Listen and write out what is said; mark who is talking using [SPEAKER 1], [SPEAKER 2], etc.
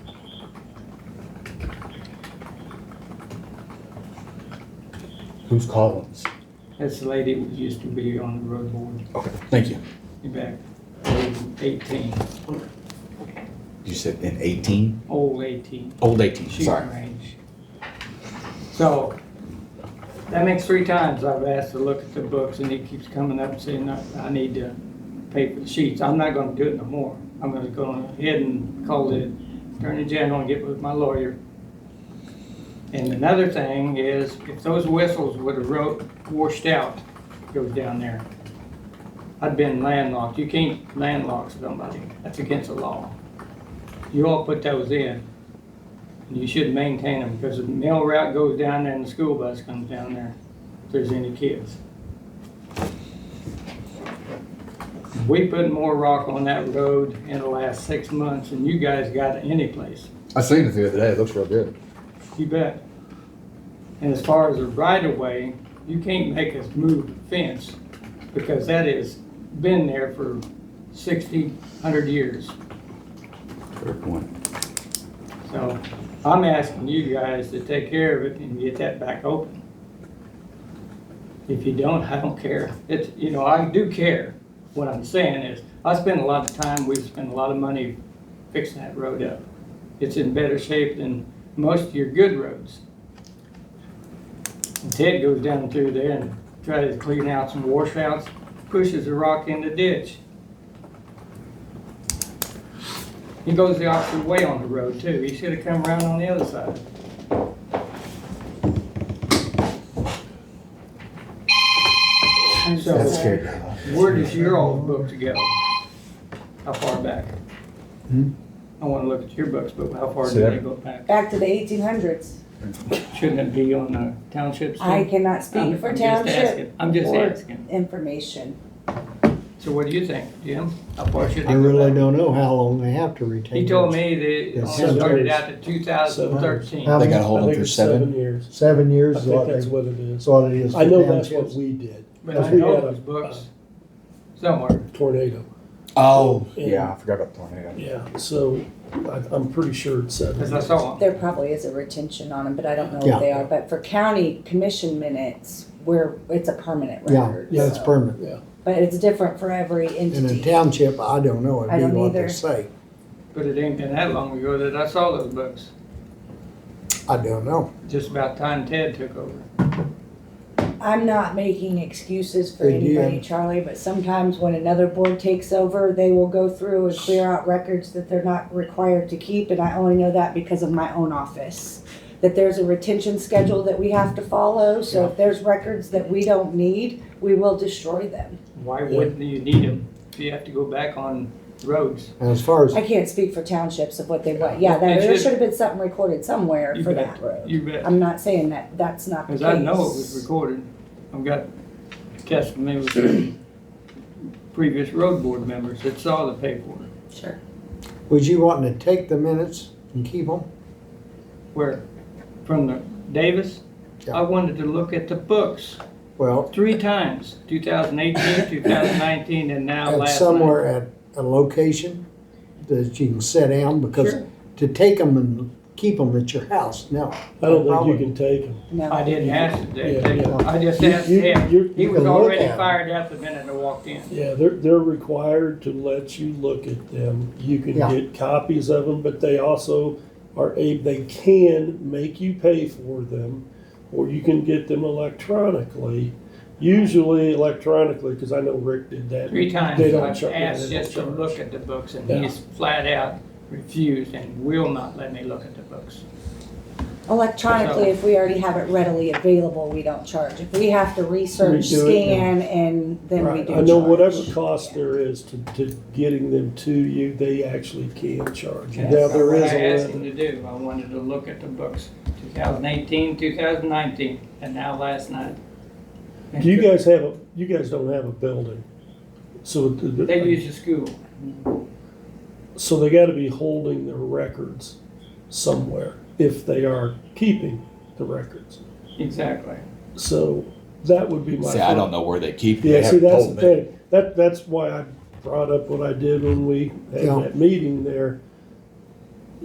[SPEAKER 1] Who's Collins?
[SPEAKER 2] That's the lady that used to be on the road board
[SPEAKER 1] Okay, thank you.
[SPEAKER 2] back in eighteen,
[SPEAKER 1] You said in eighteen?
[SPEAKER 2] old eighteen,
[SPEAKER 1] Old eighteen, sorry.
[SPEAKER 2] shooting range. So, that makes three times I've asked to look at the books and he keeps coming up saying, I, I need to pay for the sheets. I'm not gonna do it no more. I'm gonna go ahead and call the attorney general and get with my lawyer. And another thing is, if those whistles would have wrote, washed out, goes down there, I'd been landlocked. You can't landlock somebody. That's against the law. You all put those in. and You should maintain them because the mail route goes down there and the school bus comes down there if there's any kids. We put more rock on that road in the last six months than you guys got any place.
[SPEAKER 1] I seen it the other day, it looks real good.
[SPEAKER 2] You bet. And as far as the right of way, you can't make us move the fence because that has been there for sixty, hundred years.
[SPEAKER 1] Fair point.
[SPEAKER 2] So I'm asking you guys to take care of it and get that back open. If you don't, I don't care. It's, you know, I do care. What I'm saying is, I spend a lot of time, we spend a lot of money fixing that road up. It's in better shape than most of your good roads. And Ted goes down through there and tries to clean out some washouts, pushes a rock in the ditch. He goes the opposite way on the road too. He should have come around on the other side. So,
[SPEAKER 1] That scared me.
[SPEAKER 2] where does your old book to go? How far back?
[SPEAKER 1] Hmm?
[SPEAKER 2] I wanna look at your books, but how far
[SPEAKER 1] So
[SPEAKER 2] do
[SPEAKER 1] that-
[SPEAKER 2] they go back?
[SPEAKER 3] Back to the eighteen hundreds.
[SPEAKER 2] Shouldn't it be on the townships? too?
[SPEAKER 3] I cannot
[SPEAKER 2] I'm-
[SPEAKER 3] speak for
[SPEAKER 2] I'm just
[SPEAKER 3] township
[SPEAKER 2] asking. I'm just
[SPEAKER 3] or-
[SPEAKER 2] asking.
[SPEAKER 3] information.
[SPEAKER 2] So what do you think, Jim? How far should
[SPEAKER 4] I
[SPEAKER 2] it go
[SPEAKER 4] really
[SPEAKER 2] back?
[SPEAKER 4] don't know how long they have to retain.
[SPEAKER 2] He told
[SPEAKER 4] it.
[SPEAKER 2] me that it
[SPEAKER 4] It's
[SPEAKER 2] only started
[SPEAKER 5] seven
[SPEAKER 2] out to two thousand thirteen.
[SPEAKER 4] How
[SPEAKER 1] They
[SPEAKER 4] many-
[SPEAKER 1] gotta hold
[SPEAKER 5] I
[SPEAKER 1] them
[SPEAKER 5] think
[SPEAKER 1] through
[SPEAKER 5] it's seven
[SPEAKER 1] seven?
[SPEAKER 5] years.
[SPEAKER 4] Seven
[SPEAKER 5] I
[SPEAKER 4] years is
[SPEAKER 5] think
[SPEAKER 4] what they,
[SPEAKER 5] that's what it
[SPEAKER 4] that's
[SPEAKER 5] is.
[SPEAKER 4] what it is.
[SPEAKER 5] I know
[SPEAKER 4] for
[SPEAKER 5] that's what
[SPEAKER 4] townships.
[SPEAKER 5] we did,
[SPEAKER 2] But I
[SPEAKER 4] we
[SPEAKER 2] know
[SPEAKER 5] had
[SPEAKER 2] those
[SPEAKER 5] a-
[SPEAKER 2] books somewhere.
[SPEAKER 5] tornado.
[SPEAKER 1] Oh,
[SPEAKER 5] Yeah.
[SPEAKER 1] yeah, I forgot about the tornado.
[SPEAKER 5] Yeah, so I, I'm pretty sure it's seven.
[SPEAKER 2] Cause I saw them.
[SPEAKER 3] There probably is a retention on them, but I don't know
[SPEAKER 4] Yeah.
[SPEAKER 3] what they are. But for county commission minutes, where it's a permanent
[SPEAKER 4] Yeah,
[SPEAKER 3] record.
[SPEAKER 4] yeah, it's
[SPEAKER 3] so-
[SPEAKER 4] permanent.
[SPEAKER 3] But it's different for every
[SPEAKER 4] In a
[SPEAKER 3] entity.
[SPEAKER 4] township, I don't know,
[SPEAKER 3] I
[SPEAKER 4] it'd
[SPEAKER 3] don't
[SPEAKER 4] be what they
[SPEAKER 3] either.
[SPEAKER 4] say.
[SPEAKER 2] But it ain't been that long ago that I saw those books.
[SPEAKER 4] I don't know.
[SPEAKER 2] Just about time Ted took over.
[SPEAKER 3] I'm not making excuses for
[SPEAKER 4] They do.
[SPEAKER 3] anybody, Charlie, but sometimes when another board takes over, they will go through and clear out records that they're not required to keep. And I only know that because of my own office. That there's a retention schedule that we have to follow. So if there's records that we don't need, we will destroy them.
[SPEAKER 2] Why wouldn't you need them if you have to go back on roads?
[SPEAKER 4] And As far as,
[SPEAKER 3] I can't speak for townships of what they want. Yeah, that, there should have been something recorded somewhere
[SPEAKER 2] You
[SPEAKER 3] for
[SPEAKER 2] bet.
[SPEAKER 3] that road.
[SPEAKER 2] You bet.
[SPEAKER 3] I'm not saying that, that's not the
[SPEAKER 2] Cause
[SPEAKER 3] case.
[SPEAKER 2] I know it was recorded. I've got testimony with previous road board members that saw the paperwork.
[SPEAKER 3] Sure.
[SPEAKER 4] was you wanting to take the minutes and keep them?
[SPEAKER 2] Where, from the Davis,
[SPEAKER 4] Yeah.
[SPEAKER 2] I wanted to look at the books
[SPEAKER 4] Well,
[SPEAKER 2] three times, 2018, 2019, and now
[SPEAKER 4] at
[SPEAKER 2] last
[SPEAKER 4] somewhere at a location that you can sit down,
[SPEAKER 2] night.
[SPEAKER 4] because
[SPEAKER 2] Sure.
[SPEAKER 4] to take them and keep them at your house, no.
[SPEAKER 5] I don't think
[SPEAKER 4] Probably.
[SPEAKER 5] you can take them.
[SPEAKER 2] I
[SPEAKER 3] No,
[SPEAKER 2] didn't ask today.
[SPEAKER 5] Yeah, yeah.
[SPEAKER 2] I just asked
[SPEAKER 5] You- you-
[SPEAKER 2] him.
[SPEAKER 5] you-
[SPEAKER 2] He
[SPEAKER 4] you
[SPEAKER 2] was
[SPEAKER 4] can look
[SPEAKER 2] already
[SPEAKER 4] at 'em.
[SPEAKER 2] fired up the minute I walked in.
[SPEAKER 5] Yeah, they're, they're required to let you look at them. You can
[SPEAKER 4] Yeah.
[SPEAKER 5] get copies of them, but they also are a, they can make you pay for them, or you can get them electronically. Usually electronically, because I know Rick did that.
[SPEAKER 2] Three times
[SPEAKER 5] They don't
[SPEAKER 2] I've
[SPEAKER 5] charge-
[SPEAKER 2] asked
[SPEAKER 5] they don't
[SPEAKER 2] just to
[SPEAKER 5] charge.
[SPEAKER 2] look at the books and
[SPEAKER 5] Yeah.
[SPEAKER 2] he's flat out refused and will not let me look at the books.
[SPEAKER 3] electronically, if we already have it readily available, we don't charge. If we have to research,
[SPEAKER 5] We do it, yeah.
[SPEAKER 3] scan, and then we
[SPEAKER 5] Right.
[SPEAKER 3] do
[SPEAKER 5] I know whatever
[SPEAKER 3] charge.
[SPEAKER 5] cost there is to, to getting them to you, they actually can charge you.
[SPEAKER 2] And
[SPEAKER 5] Now,
[SPEAKER 2] that's
[SPEAKER 5] there
[SPEAKER 2] what
[SPEAKER 5] is
[SPEAKER 2] I asked
[SPEAKER 5] a
[SPEAKER 2] him
[SPEAKER 5] limit.
[SPEAKER 2] to do. I wanted to look at the books, 2018, 2019, and now last night.
[SPEAKER 5] Do you guys have a, you guys don't have a building? So, the- the-
[SPEAKER 2] They use the school.
[SPEAKER 5] so they gotta be holding their records somewhere if they are keeping the records.
[SPEAKER 2] Exactly.
[SPEAKER 5] So that would be my.
[SPEAKER 1] See, I don't know where they keep them. They
[SPEAKER 5] Yeah, see,
[SPEAKER 1] haven't
[SPEAKER 5] that's
[SPEAKER 1] told
[SPEAKER 5] the
[SPEAKER 1] me.
[SPEAKER 5] thing. That, that's why I brought up what I did when we had
[SPEAKER 4] Yeah.
[SPEAKER 5] that meeting there.